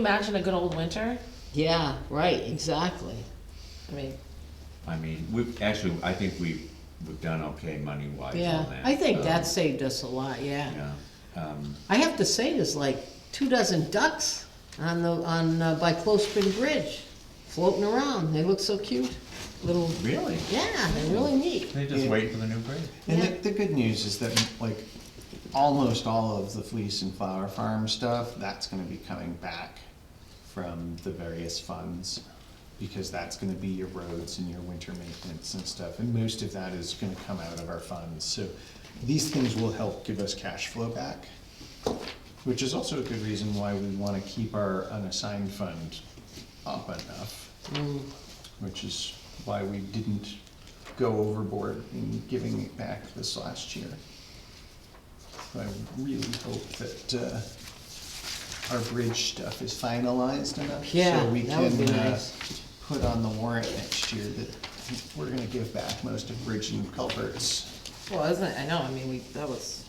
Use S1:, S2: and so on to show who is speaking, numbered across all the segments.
S1: Imagine a good old winter.
S2: Yeah, right, exactly.
S1: I mean,
S3: I mean, we've, actually, I think we've, we've done okay money-wise on
S2: Yeah,
S3: that.
S2: I think
S3: Um,
S2: that saved us a lot, yeah.
S3: Yeah, um,
S2: I have to say, there's like two dozen ducks on the, on, uh, by Close Spring Bridge, floating around, they look so cute, little,
S3: really?
S2: yeah, they're really neat.
S3: They just wait for the new bridge?
S4: And
S2: Yeah.
S4: the, the good news is that, like, almost all of the fleece and flower farm stuff, that's gonna be coming back from the various funds, because that's gonna be your roads and your winter maintenance and stuff, and most of that is gonna come out of our funds, so these things will help give us cash flow back, which is also a good reason why we wanna keep our unassigned fund up enough which is why we didn't go overboard in giving it back this last year. So I really hope that uh, our bridge stuff is finalized enough.
S2: Yeah,
S4: so we
S2: that would
S4: can
S2: be
S4: uh,
S2: nice.
S4: Put on the warrant next year that we're gonna give back most of bridge and culverts.
S1: well, isn't it? I know. I mean, we that was.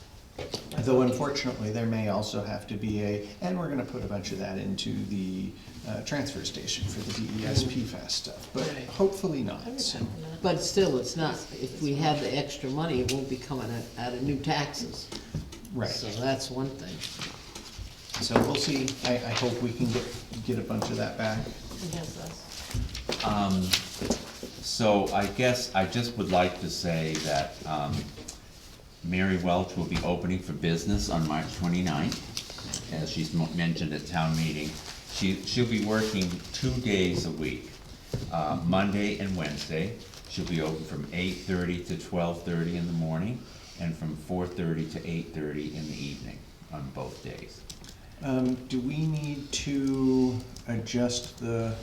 S4: Though unfortunately, there may also have to be a, and we're gonna put a bunch of that into the uh, transfer station for the E DES PFAS stuff, but
S1: Right.
S4: hopefully not. so.
S2: But still, it's not, if we have the extra money, it won't be coming out, out of new taxes.
S4: Right.
S2: So that's one thing.
S4: So we'll see, I, I hope we can get, get a bunch of that back.
S1: Yes, that's-
S3: Um, so I guess I just would like to say that, um, Mary Welch will be opening for business on March 29th, as she's mo- mentioned at town meeting. She, she'll be working two days a week, uh, Monday and Wednesday. She'll be open from eight-thirty to twelve-thirty in the morning, and from four-thirty to eight-thirty in the evening on both days.
S4: Um, do we need to adjust the,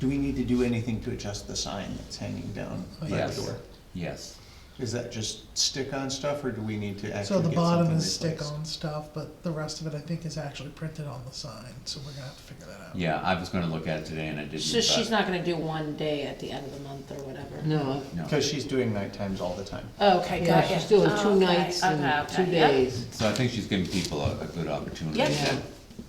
S4: do we need to do anything to adjust the sign that's hanging down by the
S3: Yes.
S4: door?
S3: Yes,
S4: Is that just stick-on stuff, or do we need to
S5: So
S4: actually get
S5: the
S4: something
S5: bottom is
S4: replaced?
S5: stick-on stuff, but the rest of it, I think, is actually printed on the sign, so we're gonna have to figure that out.
S3: yeah, I was gonna look at it today and I didn't.
S1: So she's
S3: but-
S1: not gonna do one day at the end of the month or whatever.
S2: No,
S3: No.
S4: Cause she's doing night times all the time.
S1: Oh, okay,
S2: yeah,
S1: gotcha.
S2: she's doing
S1: Oh,
S2: two
S1: okay,
S2: nights and
S1: okay,
S2: two
S1: okay, yep.
S2: days.
S3: So I think she's giving people a, a good opportunity.
S1: Yeah.
S3: that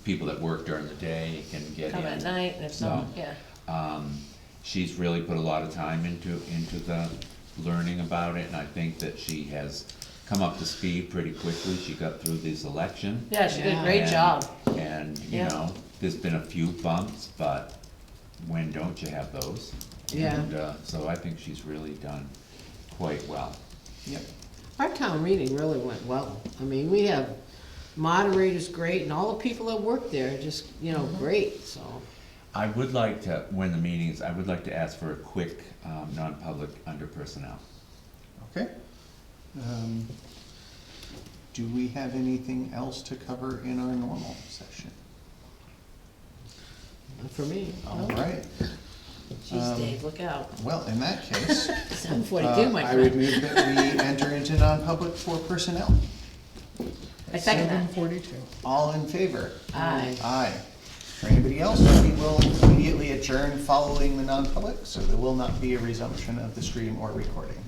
S3: People that work during the day can get
S1: Come at
S3: in.
S1: night, and if not,
S3: No.
S1: yeah.
S3: Um, she's really put a lot of time into, into the learning about it, and I think that she has come up to speed pretty quickly. She got through this election.
S1: Yeah, she did a
S2: Yeah.
S1: great
S3: and-
S1: job.
S3: And, you
S1: Yeah.
S3: know, there's been a few bumps, but when don't you have those?
S2: Yeah.
S3: And, uh, so I think she's really done quite well.
S4: Yep.
S2: Our town meeting really went well. I mean, we have moderators great and all the people that work there are just, you know, great, so.
S3: I would like to, when the meeting is, I would like to ask for a quick, um, non-public under personnel.
S4: Okay. Um, Do we have anything else to cover in our normal session?
S2: For me.
S4: All right,
S1: Jeez, Dave, look out.
S4: well, in that case,
S2: I'm
S4: Um, Uh,
S2: forty-two, my
S4: I would
S2: friend.
S4: move that we enter into non-public for personnel.
S1: I second
S5: Seven
S1: that.
S5: forty-two.
S4: All in favor?
S1: Aye.
S4: Aye. For anybody else, we will immediately adjourn following the non-public, so there will not be a resumption of the stream or recording.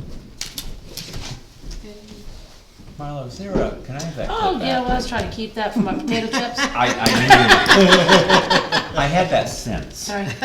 S3: Marlo, is there a, can I have that
S1: Oh,
S3: clip
S1: yeah, well, I
S3: back?
S1: was trying to keep that for my potato chips.
S3: I, I knew, I had that sense.
S1: Sorry.